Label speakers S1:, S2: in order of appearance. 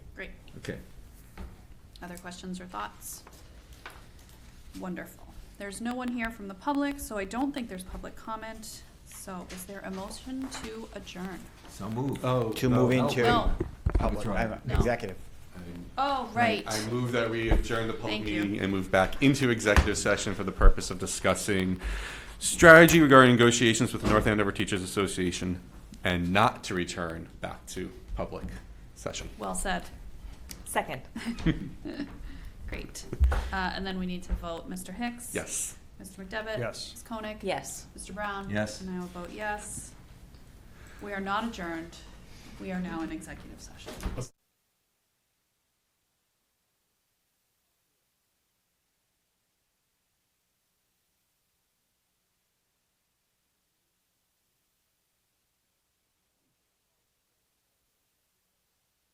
S1: Great.
S2: Okay.
S1: Other questions or thoughts? Wonderful. There's no one here from the public, so I don't think there's public comment. So is there a motion to adjourn?
S2: So move.
S3: Oh,
S4: To
S3: no,
S4: move
S3: no.
S4: into-
S1: No.
S4: Public,
S2: Withdrawn.
S4: I'm
S1: No.
S4: executive.
S1: Oh, right.
S3: I move that we adjourn the public
S1: Thank you.
S3: meeting and move back into executive session for the purpose of discussing strategy regarding negotiations with the North Andover Teachers Association and not to return back to public session.
S1: Well said.
S5: Second.
S1: Great. Uh, and then we need to vote Mr. Hicks.
S3: Yes.
S1: Mr. McDevitt.
S6: Yes.
S1: Ms. Koenig.
S5: Yes.
S1: Mr. Brown.
S2: Yes.
S1: And I will vote yes. We are not adjourned. We are now in executive session.